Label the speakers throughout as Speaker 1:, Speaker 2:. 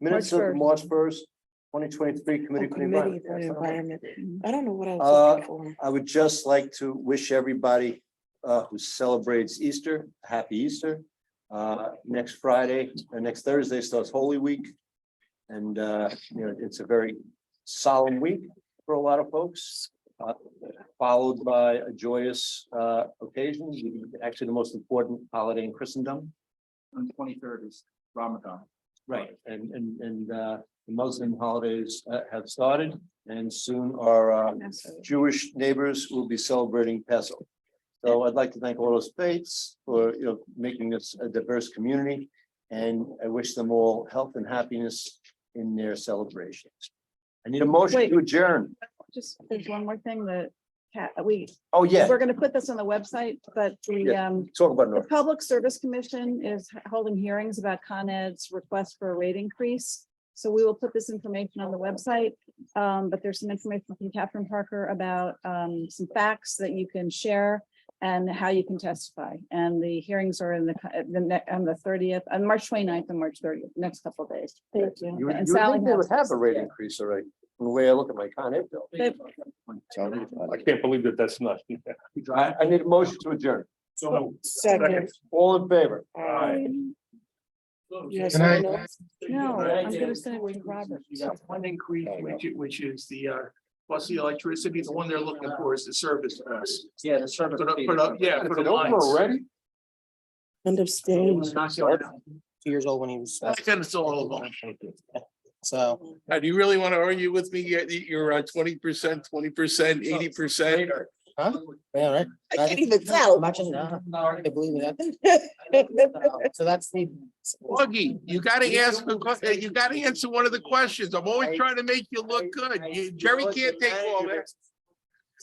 Speaker 1: Minutes
Speaker 2: March
Speaker 1: of March first, twenty twenty-three committee. for the
Speaker 2: Committee
Speaker 1: Environment.
Speaker 2: for
Speaker 1: Yes, okay.
Speaker 2: Environment. Mm. I don't know what I
Speaker 1: Uh,
Speaker 2: was looking for.
Speaker 1: I would just like to wish everybody uh who celebrates Easter, a happy Easter. Uh, next Friday, or next Thursday starts Holy Week. And uh, you know, it's a very solemn week for a lot of folks. uh, Followed by a joyous uh occasion, actually the most important holiday in Christendom.
Speaker 3: On twenty-third is Ramadan.
Speaker 1: Right, and and and uh the Muslim holidays uh, have started and soon our uh Jewish neighbors will be celebrating Passover. So I'd like to thank all those faiths for, you know, making this a diverse community. And I wish them all health and happiness in their celebrations. I need a motion
Speaker 4: Wait.
Speaker 1: to adjourn.
Speaker 4: Just, there's one more thing that, Kat- we,
Speaker 1: Oh, yeah,
Speaker 4: we're gonna put this on the website, but the,
Speaker 1: Yeah.
Speaker 4: um,
Speaker 1: talk about
Speaker 4: the
Speaker 1: North.
Speaker 4: Public Service Commission is holding hearings about Con Ed's request for a rate increase. So we will put this information on the website, um, but there's some information from Catherine Parker about, um, some facts that you can share and how you can testify. And the hearings are in the, the, ne- on the thirtieth, on March 29th and March thirtieth, next couple of days.
Speaker 2: Thank you.
Speaker 1: You would
Speaker 4: and
Speaker 1: you would
Speaker 4: Sally
Speaker 1: think they would
Speaker 4: has-
Speaker 1: have a rate increase already, from the way I look at my Con Ed bill.
Speaker 4: They've-
Speaker 5: I can't believe that that's not.
Speaker 1: I, I need a motion to adjourn.
Speaker 5: So.
Speaker 2: Second.
Speaker 1: All in favor?
Speaker 5: Aye.
Speaker 2: uh, You have someone else?
Speaker 4: No, I'm gonna send it to Robert.
Speaker 6: You got one increase, which, i- which is the, uh, plus the electricity, the one they're looking for is the service cost.
Speaker 3: Yeah, the service.
Speaker 6: Put up,
Speaker 3: fee.
Speaker 6: put up, yeah,
Speaker 1: Is
Speaker 6: put
Speaker 1: it
Speaker 6: up
Speaker 1: over
Speaker 6: lines.
Speaker 1: already?
Speaker 2: End of stage.
Speaker 3: It's not going up.
Speaker 7: two years old when he was, uh,
Speaker 6: That kind of all along.
Speaker 7: so.
Speaker 5: Now, do you really want to argue with me? You're- You're uh, twenty percent, twenty percent, eighty percent?
Speaker 7: Yeah, right.
Speaker 2: I can't even tell.
Speaker 7: Imagine, uh, I believe that. So that's the.
Speaker 5: Augie, you gotta ask, a que- you gotta answer one of the questions. I'm always trying to make you look good. You- Jerry can't take all that.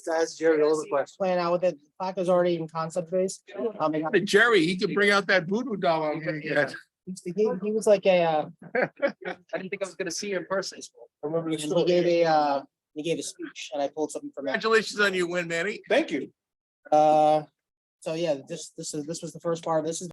Speaker 7: That's Jerry, all the questions. Playing out with it, plaque is already in concept phase. Um, they got-
Speaker 5: Jerry, he could bring out that voodoo doll. I'm gonna get.
Speaker 7: He, he was like a, uh,
Speaker 3: I didn't think I was gonna see you in person.
Speaker 7: and he gave a, uh, he gave a speech and I pulled something from it.
Speaker 5: Congratulations on your win, Manny.
Speaker 1: Thank you.
Speaker 7: Uh, so yeah, this, this is, this was the first part. This is